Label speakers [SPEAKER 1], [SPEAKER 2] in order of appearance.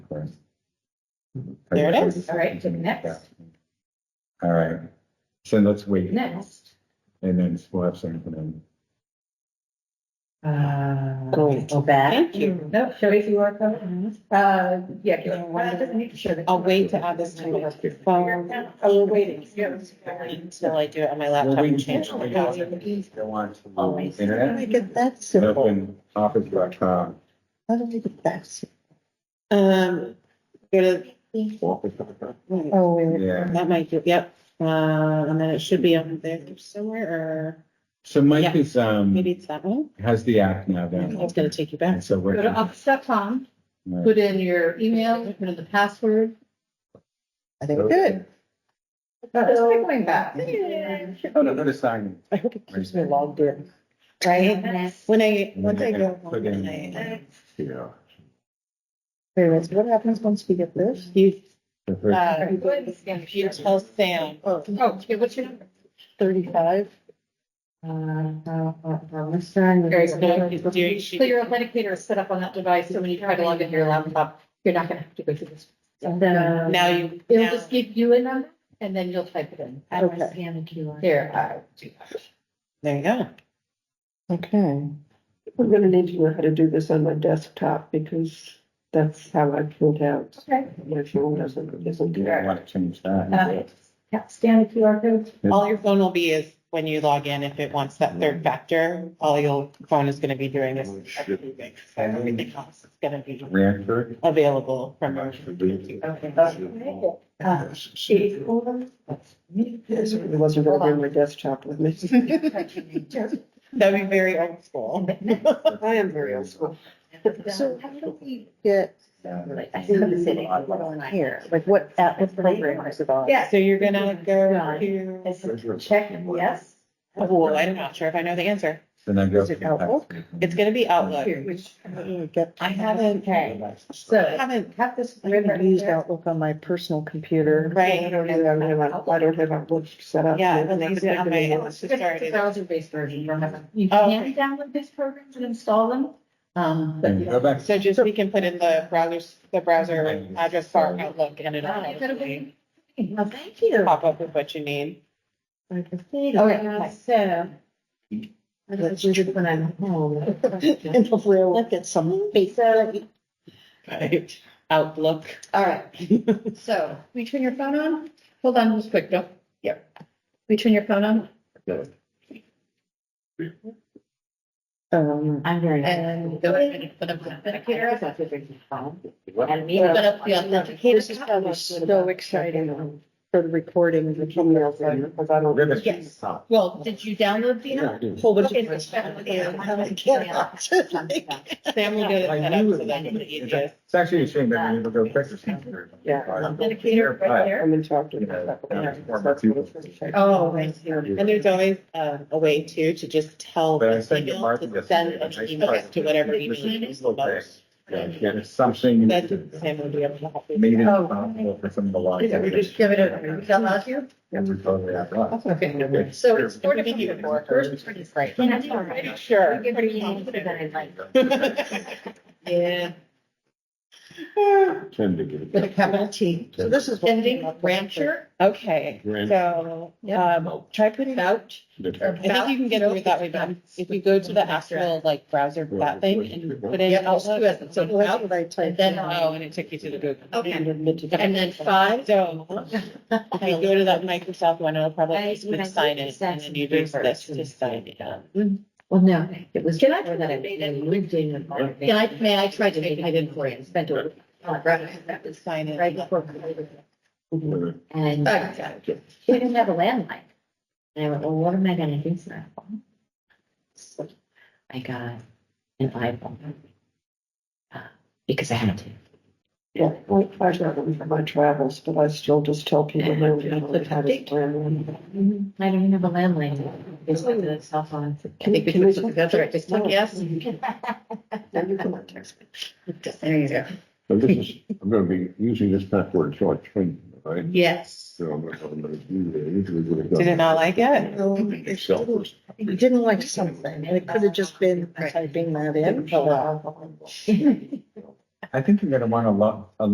[SPEAKER 1] Right.
[SPEAKER 2] There it is. All right, take next.
[SPEAKER 1] All right, so let's wait
[SPEAKER 2] Next,
[SPEAKER 1] and then we'll have something in.
[SPEAKER 2] uh.
[SPEAKER 3] Going to back.
[SPEAKER 2] Thank you. No, show a QR code. Uh, yeah.
[SPEAKER 3] You know, one-
[SPEAKER 2] QR code doesn't need to show the-
[SPEAKER 3] I'll wait to add this to my phone. Oh, we're waiting.
[SPEAKER 2] Yes.
[SPEAKER 3] Until I do it on my laptop and change it. to browser.
[SPEAKER 1] Go on
[SPEAKER 2] Oh, I
[SPEAKER 1] to
[SPEAKER 2] see.
[SPEAKER 1] the
[SPEAKER 3] How do I
[SPEAKER 1] internet,
[SPEAKER 3] get that simple?
[SPEAKER 1] open office.com,
[SPEAKER 3] How do I get that? simple? Um, go to,
[SPEAKER 1] office.com.
[SPEAKER 3] oh, wait,
[SPEAKER 1] Yeah,
[SPEAKER 3] that might, do- yep, uh, and then it should be on there somewhere,
[SPEAKER 1] so Mike
[SPEAKER 3] Yeah.
[SPEAKER 1] is,
[SPEAKER 3] or
[SPEAKER 1] um,
[SPEAKER 3] maybe it's that one.
[SPEAKER 1] has the app now
[SPEAKER 3] It's gonna
[SPEAKER 1] down.
[SPEAKER 3] take you back.
[SPEAKER 1] So we're.
[SPEAKER 4] Go to office.com,
[SPEAKER 1] Right.
[SPEAKER 4] put in your email, put in the password.
[SPEAKER 3] I think good.
[SPEAKER 2] Oh, It's like going back.
[SPEAKER 1] Oh, no, go to sign.
[SPEAKER 3] I hope it keeps me logged in. Right?
[SPEAKER 2] Next.
[SPEAKER 3] When I,
[SPEAKER 1] And then
[SPEAKER 3] once I
[SPEAKER 1] you're
[SPEAKER 3] go
[SPEAKER 1] gonna
[SPEAKER 3] home
[SPEAKER 1] put in-
[SPEAKER 3] and I.
[SPEAKER 1] Yeah.
[SPEAKER 3] Wait, wait, so what happens once we get this? You,
[SPEAKER 1] The first-
[SPEAKER 3] uh,
[SPEAKER 2] Go ahead and scan the
[SPEAKER 3] you
[SPEAKER 2] QR code.
[SPEAKER 3] tell Sam, oh,
[SPEAKER 2] Oh, okay, what's your number?
[SPEAKER 3] thirty-five.
[SPEAKER 2] Very
[SPEAKER 3] It's doing-
[SPEAKER 2] good. So your authenticator is set up on that device, so when you try to log into your laptop, you're not gonna have to go through this.
[SPEAKER 3] Now you.
[SPEAKER 4] It'll
[SPEAKER 3] now-
[SPEAKER 4] just give you a number and then you'll type it in.
[SPEAKER 3] How do I Okay.
[SPEAKER 2] Here, I do that.
[SPEAKER 3] There you go.
[SPEAKER 5] Okay. I'm gonna need to know how to do this on my desktop because that's how I filled out.
[SPEAKER 2] Okay.
[SPEAKER 5] My phone doesn't, doesn't do
[SPEAKER 1] You
[SPEAKER 5] that.
[SPEAKER 1] don't want to change that.
[SPEAKER 2] Uh, yeah, Scan the QR code.
[SPEAKER 3] All your phone will be is when you log in, if it wants that third factor, all your phone is gonna be doing is everything. So everything else is gonna be
[SPEAKER 1] Ranford.
[SPEAKER 3] available from. your-
[SPEAKER 2] Uh, Eight, four.
[SPEAKER 5] Yes, it wasn't gonna bring my desktop with me.
[SPEAKER 3] That'd be very old school.
[SPEAKER 5] I am very old school.
[SPEAKER 2] So
[SPEAKER 3] how do we get
[SPEAKER 2] Here,
[SPEAKER 3] like what,
[SPEAKER 2] app- what program
[SPEAKER 3] is it on?
[SPEAKER 2] Yeah.
[SPEAKER 3] So you're gonna go to,
[SPEAKER 2] Check, yes.
[SPEAKER 3] oh, I'm not sure if I know the answer.
[SPEAKER 1] Then I go.
[SPEAKER 3] Is it Outlook? It's gonna be Outlook. I haven't,
[SPEAKER 2] Okay,
[SPEAKER 3] I
[SPEAKER 2] so
[SPEAKER 3] haven't,
[SPEAKER 2] have this.
[SPEAKER 5] Outlook on my personal computer.
[SPEAKER 3] Right.
[SPEAKER 5] I don't have, I don't have, I don't have Outlook set up.
[SPEAKER 3] yeah, I'm using it on my, it's just started.
[SPEAKER 2] Browser-based version, you don't have to- you
[SPEAKER 3] Oh,
[SPEAKER 2] can
[SPEAKER 3] okay.
[SPEAKER 2] download these programs and install them. Um, but
[SPEAKER 1] And
[SPEAKER 2] you
[SPEAKER 1] go
[SPEAKER 2] don't-
[SPEAKER 1] back.
[SPEAKER 3] So just, we can put in the browsers, the browser address bar outlook and it'll
[SPEAKER 2] Oh, you gotta
[SPEAKER 3] automatically
[SPEAKER 2] wait. Oh, thank you.
[SPEAKER 3] pop up with what you need.
[SPEAKER 2] Okay, Uh, so.
[SPEAKER 5] Let's do it when I'm home.
[SPEAKER 3] And hopefully I'll look at some
[SPEAKER 2] So,
[SPEAKER 3] Right, outlook.
[SPEAKER 2] all right, so, we turn your phone on, hold on just quick, don't. Yep. We turn your phone on
[SPEAKER 5] Um,
[SPEAKER 4] I'm very.
[SPEAKER 2] and go ahead and put up the authenticator.
[SPEAKER 4] And me.
[SPEAKER 2] Put up the authenticator.
[SPEAKER 5] this is probably so exciting for the recording of the emails because I don't.
[SPEAKER 1] Ribbon.
[SPEAKER 2] Yes. Well, did you download the app?
[SPEAKER 3] Whole bunch
[SPEAKER 2] Okay,
[SPEAKER 3] of.
[SPEAKER 2] so it's better with the
[SPEAKER 3] Sam will get it set up so that's the easiest.
[SPEAKER 1] It's actually a shame that we never go quicker.
[SPEAKER 5] Yeah.
[SPEAKER 2] Authenticator right there.
[SPEAKER 5] I'm in talk to
[SPEAKER 1] You
[SPEAKER 5] them.
[SPEAKER 1] know, um,
[SPEAKER 5] That's what it's like.
[SPEAKER 2] Oh, right here.
[SPEAKER 3] And there's always um, a way too to just tell
[SPEAKER 1] But I
[SPEAKER 3] the
[SPEAKER 1] think
[SPEAKER 3] email
[SPEAKER 1] Martha
[SPEAKER 3] to
[SPEAKER 1] gets-
[SPEAKER 3] send an email to whatever email you use the most.
[SPEAKER 1] It's something.
[SPEAKER 3] That's Oh, Sam will be able to help you.
[SPEAKER 1] Made it possible for some of the laws.
[SPEAKER 2] Yeah, we just give it a, we tell us you.
[SPEAKER 1] And we totally have lost.
[SPEAKER 2] Okay, so it's four different people. First one is right.
[SPEAKER 3] Pretty Sure.
[SPEAKER 4] You give me names that I like.
[SPEAKER 2] Yeah.
[SPEAKER 1] Tend to get.
[SPEAKER 2] With a capital T.
[SPEAKER 3] So this is.
[SPEAKER 2] Ending rancher.
[SPEAKER 3] Okay, so, um, try putting out. I think you can get over that way, but if you go to the actual like browser, that thing and put in
[SPEAKER 2] Yep, those two
[SPEAKER 3] Outlook.
[SPEAKER 2] as- so out, and then,
[SPEAKER 3] Oh,
[SPEAKER 2] oh,
[SPEAKER 3] and it took you to the Google.
[SPEAKER 2] Okay. and then five.
[SPEAKER 3] So, if you go to that Microsoft one, it'll probably
[SPEAKER 4] I-
[SPEAKER 3] just click sign in and then you use this to sign in.
[SPEAKER 4] Well, no, it was.
[SPEAKER 2] Can I
[SPEAKER 4] before that
[SPEAKER 2] participate in-
[SPEAKER 4] lived in environment.
[SPEAKER 2] Can I, may I try to make it in for you? and Spent a. Right
[SPEAKER 3] To Sign in.
[SPEAKER 2] before.
[SPEAKER 4] And she didn't have a landline. And I went, well, what am I gonna do? So I phone? So I got an iPhone. uh, Because I had to.
[SPEAKER 5] Yeah, well, I got them for my travels, but I still just tell people no, you know, I've had a plan.
[SPEAKER 4] I don't even have a landline. It's like a cell phone.
[SPEAKER 2] I think we
[SPEAKER 5] Can
[SPEAKER 2] put
[SPEAKER 5] we-
[SPEAKER 2] some together, right, just like, yes.
[SPEAKER 5] Then you can text me.
[SPEAKER 2] There you go.
[SPEAKER 6] So this is, I'm gonna be using this password until I train, right?
[SPEAKER 2] Yes.
[SPEAKER 6] So I'm gonna, I'm gonna do that. Usually would have done
[SPEAKER 3] Did it not like it?
[SPEAKER 6] Excel first.
[SPEAKER 3] You didn't like something. It could have just been typing that in.
[SPEAKER 1] I think you're gonna uh, want a lot, a